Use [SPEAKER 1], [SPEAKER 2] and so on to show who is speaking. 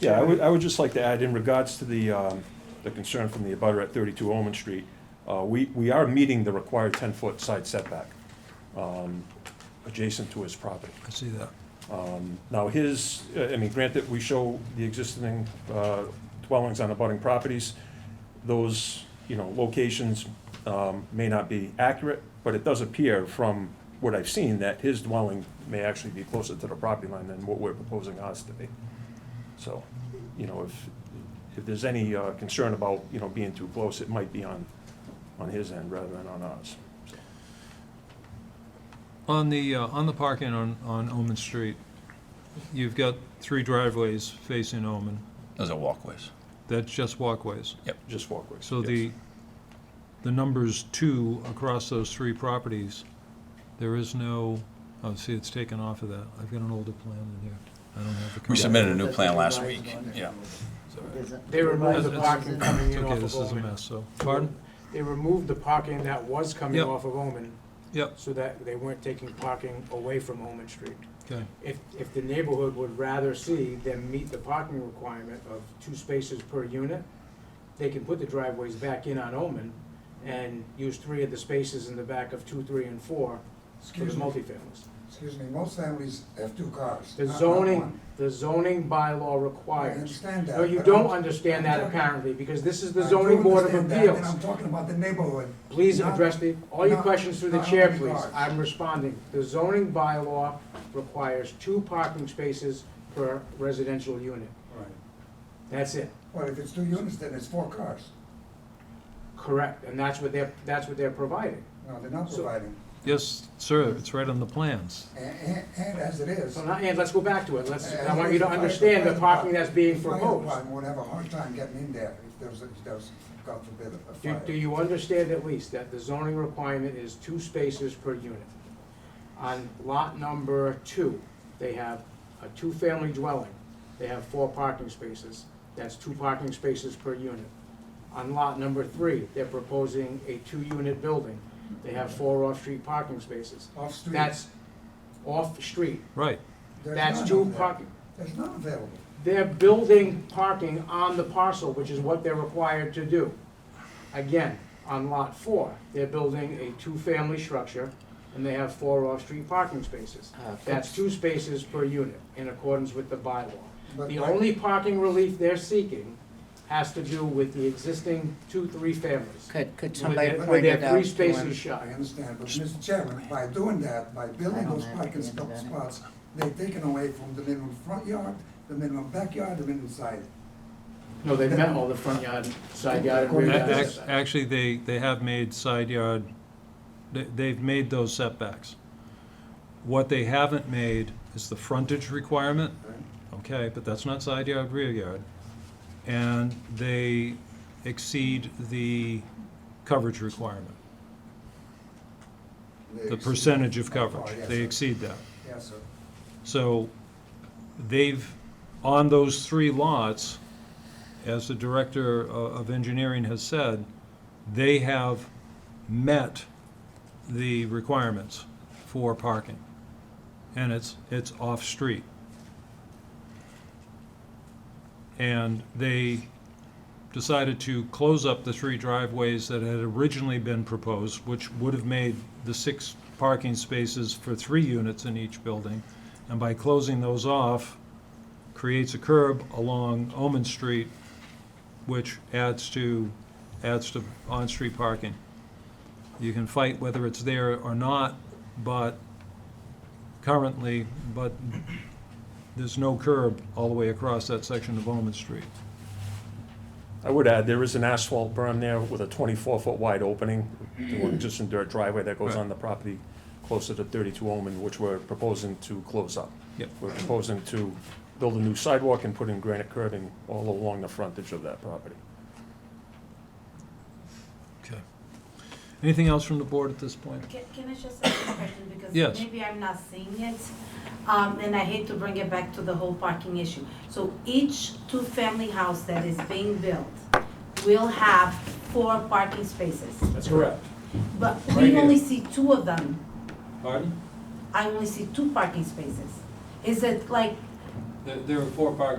[SPEAKER 1] Yeah, I would, I would just like to add, in regards to the, um, the concern from the abutter at thirty-two Olman Street, uh, we, we are meeting the required ten-foot side setback, um, adjacent to his property.
[SPEAKER 2] I see that.
[SPEAKER 1] Now, his, uh, I mean, granted, we show the existing uh, dwellings on abutting properties. Those, you know, locations um, may not be accurate, but it does appear from what I've seen that his dwelling may actually be closer to the property line than what we're proposing ours to be. So, you know, if, if there's any uh, concern about, you know, being too close, it might be on, on his end rather than on ours.
[SPEAKER 2] On the, uh, on the parking on, on Omen Street, you've got three driveways facing Omen.
[SPEAKER 3] Those are walkways.
[SPEAKER 2] That's just walkways.
[SPEAKER 1] Just walkways.
[SPEAKER 2] So
[SPEAKER 1] yes.
[SPEAKER 2] the, the numbers two across those three properties, there is no, oh, see, it's taken off of that. I've got an older plan in here. I don't have the.
[SPEAKER 3] We
[SPEAKER 2] current-
[SPEAKER 3] submitted a new
[SPEAKER 4] That's
[SPEAKER 3] plan
[SPEAKER 4] the
[SPEAKER 3] last
[SPEAKER 4] revised
[SPEAKER 3] week,
[SPEAKER 4] one.
[SPEAKER 3] yeah.
[SPEAKER 4] There's a-
[SPEAKER 5] They removed the
[SPEAKER 2] It's-
[SPEAKER 5] parking coming
[SPEAKER 2] It's
[SPEAKER 5] in
[SPEAKER 2] okay,
[SPEAKER 5] off
[SPEAKER 2] this
[SPEAKER 5] of
[SPEAKER 2] is a
[SPEAKER 5] Omen.
[SPEAKER 2] mess, so, pardon?
[SPEAKER 5] They removed the parking that was coming
[SPEAKER 2] Yep.
[SPEAKER 5] off of Omen,
[SPEAKER 2] Yep,
[SPEAKER 5] so that they weren't taking parking away from Omen Street.
[SPEAKER 2] okay,
[SPEAKER 5] If, if the neighborhood would rather see them meet the parking requirement of two spaces per unit, they can put the driveways back in on Omen and use three of the spaces in the back of two, three, and four for the
[SPEAKER 6] Excuse me,
[SPEAKER 5] multifamilies.
[SPEAKER 6] excuse me, most families have two cars.
[SPEAKER 5] The
[SPEAKER 6] not- not
[SPEAKER 5] zoning,
[SPEAKER 6] Uh, one.
[SPEAKER 5] the zoning bylaw
[SPEAKER 6] I
[SPEAKER 5] requires.
[SPEAKER 6] understand that.
[SPEAKER 5] No, you
[SPEAKER 6] but
[SPEAKER 5] don't
[SPEAKER 6] I'm-
[SPEAKER 5] understand that
[SPEAKER 6] I'm talking-
[SPEAKER 5] apparently, because this is
[SPEAKER 6] I
[SPEAKER 5] the
[SPEAKER 6] do
[SPEAKER 5] zoning board of
[SPEAKER 6] understand that,
[SPEAKER 5] appeals.
[SPEAKER 6] And I'm talking about the neighborhood.
[SPEAKER 5] Please
[SPEAKER 6] not-
[SPEAKER 5] address the, all your
[SPEAKER 6] not-
[SPEAKER 5] questions through the
[SPEAKER 6] not
[SPEAKER 5] chair,
[SPEAKER 6] only
[SPEAKER 5] please.
[SPEAKER 6] cars.
[SPEAKER 5] I'm responding. The zoning bylaw requires two parking spaces per residential unit.
[SPEAKER 6] Right.
[SPEAKER 5] That's it.
[SPEAKER 6] Well, if it's two units, then it's four cars.
[SPEAKER 5] Correct. And that's what they're, that's what they're providing.
[SPEAKER 6] No, they're not
[SPEAKER 5] So-
[SPEAKER 6] providing.
[SPEAKER 2] yes, sir, it's right on the plans.
[SPEAKER 6] A- a- And as it is.
[SPEAKER 5] So now, and let's go back to it. Let's,
[SPEAKER 6] a-
[SPEAKER 5] I want
[SPEAKER 6] as
[SPEAKER 5] you
[SPEAKER 6] it
[SPEAKER 5] to
[SPEAKER 6] is,
[SPEAKER 5] understand the
[SPEAKER 6] fire
[SPEAKER 5] parking that's being
[SPEAKER 6] department- Fire
[SPEAKER 5] proposed.
[SPEAKER 6] department would have a hard time getting in there if there was, if there was, God forbid, a
[SPEAKER 5] Do,
[SPEAKER 6] fire.
[SPEAKER 5] do you understand at least that the zoning requirement is two spaces per unit? On lot number two, they have a two-family dwelling, they have four parking spaces, that's two parking spaces per unit. On lot number three, they're proposing a two-unit building, they have four off-street parking spaces.
[SPEAKER 6] Off-street.
[SPEAKER 5] That's off-street,
[SPEAKER 2] Right,
[SPEAKER 6] There's
[SPEAKER 5] that's
[SPEAKER 6] none
[SPEAKER 5] two
[SPEAKER 6] of that.
[SPEAKER 5] parking,
[SPEAKER 6] There's none available.
[SPEAKER 5] they're building parking on the parcel, which is what they're required to do. Again, on lot four, they're building a two-family structure, and they have four off-street parking spaces. That's two spaces per unit, in accordance with the bylaw.
[SPEAKER 6] But-
[SPEAKER 5] The
[SPEAKER 6] but-
[SPEAKER 5] only parking relief they're seeking has to do with the existing two, three families.
[SPEAKER 4] Could, could
[SPEAKER 5] where
[SPEAKER 4] somebody
[SPEAKER 5] they're-
[SPEAKER 4] point
[SPEAKER 5] where
[SPEAKER 4] it out
[SPEAKER 5] they're
[SPEAKER 4] to him?
[SPEAKER 5] three spaces shy.
[SPEAKER 6] I understand, but Mr. Chairman, by doing that, by building
[SPEAKER 4] don't
[SPEAKER 6] those
[SPEAKER 4] have
[SPEAKER 6] parking
[SPEAKER 4] any
[SPEAKER 6] spo-
[SPEAKER 4] of that.
[SPEAKER 6] spots, they've taken away from the minimum front yard, the minimum backyard, the minimum side. uh,
[SPEAKER 5] No, they met all the front yard, side yard, and
[SPEAKER 2] A-
[SPEAKER 5] rear yard.
[SPEAKER 2] ac-
[SPEAKER 5] setbacks.
[SPEAKER 2] Actually, they, they have made side yard, they- they've made those setbacks. What they haven't made is the frontage requirement, okay, but that's not side yard, rear yard. And they exceed the coverage requirement, the percentage of coverage. They exceed that.
[SPEAKER 6] Yes, sir.
[SPEAKER 2] So they've, on those three lots, as the director o- of engineering has said, they have met the requirements for parking. And it's, it's off-street. And they decided to close up the three driveways that had originally been proposed, which would have made the six parking spaces for three units in each building. And by closing those off, creates a curb along Omen Street, which adds to, adds to on-street parking. You can fight whether it's there or not, but currently, but there's no curb all the way across that section of Omen Street.
[SPEAKER 1] I would add, there is an asphalt berm there with a 24-foot wide opening, to an existing dirt driveway that goes on the property closer to 32 Omen, which we're proposing to close up.
[SPEAKER 2] Yep.
[SPEAKER 1] We're proposing to build a new sidewalk and put in granite curving all along the frontage of that property.
[SPEAKER 2] Okay. Anything else from the board at this point?
[SPEAKER 7] Can can I just ask a question?
[SPEAKER 2] Yes.
[SPEAKER 7] Because maybe I'm not seeing it, um, and I hate to bring it back to the whole parking issue. So each two-family house that is being built will have four parking spaces,
[SPEAKER 5] That's correct.
[SPEAKER 7] but
[SPEAKER 5] Right
[SPEAKER 7] we
[SPEAKER 5] here.
[SPEAKER 7] only see two of them.
[SPEAKER 2] Pardon?
[SPEAKER 7] I only see two parking spaces. Is it like
[SPEAKER 2] There are four parking